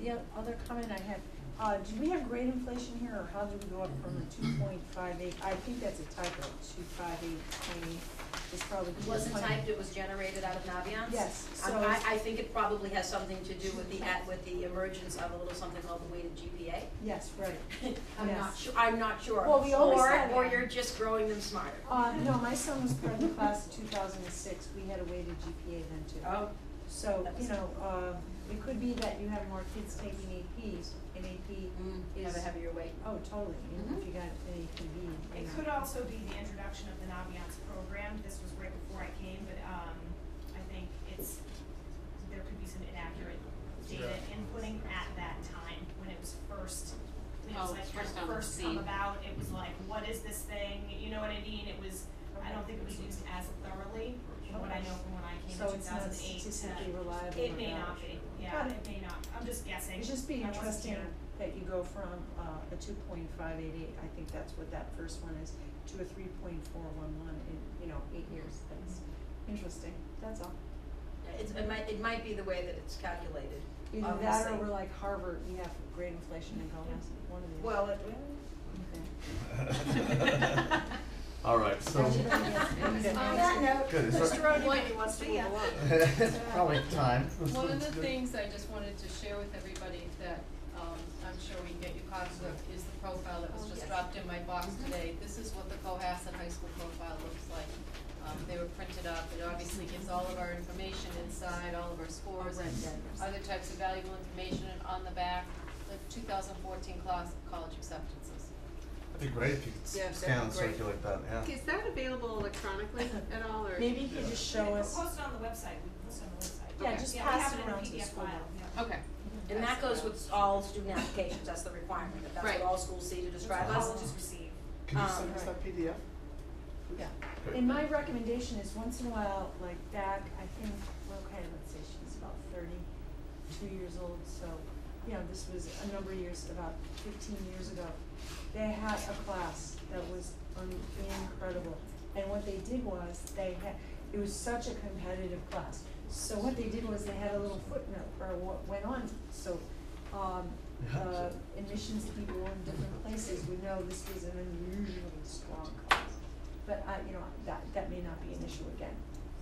the o- other comment I had, uh, do we have grade inflation here, or how do we go up from the two point five eight, I think that's a typo, two five eight twenty, it's probably. It wasn't typed, it was generated out of Naviance. Yes, Um, so I, it's- I think it probably has something to do with the, at- with the emergence of a little something called the weighted GPA. Yes, right. I'm not Yes. sure, I'm not sure. Well, we always Or- had Or that. you're just growing them smarter. Uh, no, my son was part of the class of two thousand and six, we had a weighted GPA then too. Oh. So, That was- you know, uh, it could be that you have more kids taking APs, and AP, Mm, have a Is- heavier weight. oh, totally, even if Mhm. you got an APB, you It know. could also be the introduction of the Naviance program, this was right before I came, but, um, I think it's, there could be some inaccurate data Yeah. inputting at that time, when it was first, when it was Oh, like, it's kind first of on the first come scene. about, it was like, what is this thing, you know what I mean, it was, I don't think it was used as thoroughly, from what I know from when I came So in two it's not thousand eight to. statistically reliable. It may or not be, yeah, Got it. it may not, I'm just guessing. It's just be I wasn't interesting here. that you go from uh, a two point five eight eight, I think that's what that first one is, to a three point four one one in, you know, eight years, that's interesting, that's all. It's, it might, it might be the way that it's calculated, Either that or obviously. we're like Harvard, we have great inflation and go, one of these. Well, it, Okay. All right, so. On that note. Good, is Mr. there- Rodney really wants to move Yeah. along. It's Probably time. One of the things I just wanted to share with everybody that, um, I'm sure we can get you copies of is the profile that was Oh, yes. just dropped in my box Mm-hmm. today. This is what the Cohasset High School profile looks like. Um, they were printed up, it obviously gives all of our information inside, all of our scores and other types of valuable information, and on the back, the two thousand fourteen class, college acceptances. It'd be great if you Yeah, could that'd scan and be great. circulate that, yeah. Is that available electronically at all, or? Maybe you could just show us, Post it on the website, we can post it on the website. Yeah, just pass it around to the school. Yeah, we have it in a PDF file, yeah. Okay. and that goes with all student applications, that's the requirement, if that's Right. what all schools see to describe us. Colleges receive. Can you Um, send us that PDF? yeah. Good. And my recommendation is once in a while, like back, I think, okay, let's say she's about thirty-two years old, so, you know, this was a number of years, about fifteen years ago. They had a class that was un- incredible, and what they did was, they had, it was such a competitive class. So what they did was they had a little footnote for what went on, so, um, uh, admissions people in different places would know this was an unusually strong class. But I, you know, that, that may not be an issue again.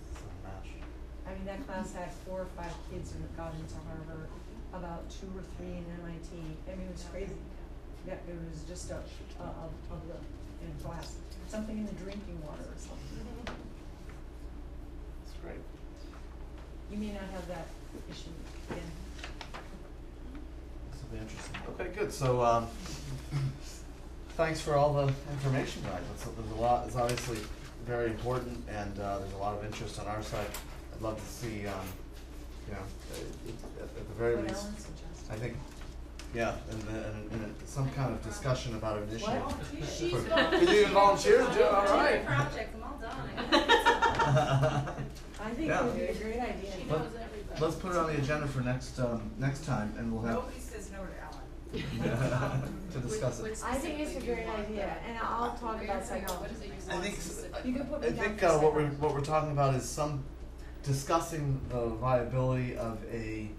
It's a match. I mean, that class had four or five kids who had gone into Harvard, about two or three in MIT. I mean, it was crazy. Yeah, it was just a, a, a, a, look in a glass, something in the drinking water or something. It's great. You may not have that issue again. This will be interesting. Okay, good, so, um, thanks for all the information, guys. It's, there's a lot, it's obviously very important and, uh, there's a lot of interest on our side. I'd love to see, um, you know, uh, at, at the very What least, Ellen suggested. I think, yeah, and, the- and, and some kind of discussion about an issue. What? She's For- volunteering. Could you volunteer, Jill? All right. Project, I'm all done. I think it Yeah. would be a great idea. Let- Let's put it on the agenda for next, um, next time and we'll have, Nobody says no to Ellen. to discuss it. I think it's a great idea, and I'll talk about What is psychology. it you I want think, s- specific- I You can put me I down think for uh, what we're, second. what we're talking about is some, discussing the viability of a,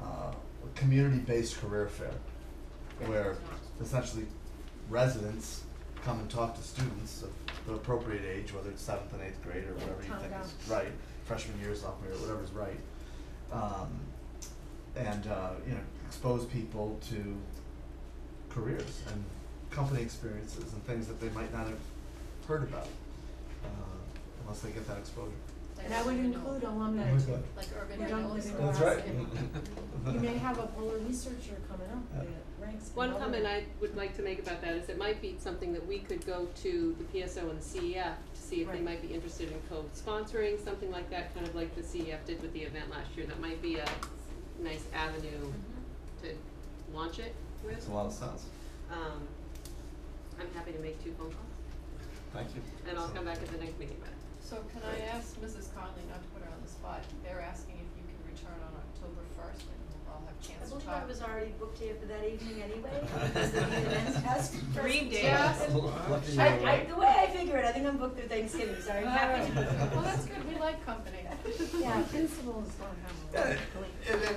uh, community-based career fair. Where essentially residents come and talk to students of the appropriate age, whether it's seventh and eighth grade or whatever you Tom think Brown. is right, freshman year, sophomore year, whatever's right. Um, and, uh, you know, expose people to careers and company experiences and things that they might not have heard about, uh, unless they get that exposure. like And I would urban include renewal- alumni too. Like urban We don't renewal. live in sort of That's right. thing. Uh-huh. You may have a polar researcher coming up that ranks. One another- comment I would like to make about that is it might be something that we could go to the PSO and the CEF to see if they Right. might be interested in co-sponsoring, something like that, kind of like the CEF did with the event last year. That might be a nice avenue to launch it Makes with. a lot of sense. Um, I'm happy to make two phone calls, Thank you. and I'll come back at the next meeting about it. So can I ask Mrs. Conley, not to put her on the spot, they're asking if you can return on October first and we'll all have I chance to talk. believe I was already booked here for that evening anyway, because of the events task. Dream day. Yeah. Lucky you I, were I, right. the way I figure it, I think I'm booked through Thanksgiving, so I'm happy to. Well, that's good, we like company. Yeah, principals don't have. a- Yeah, and then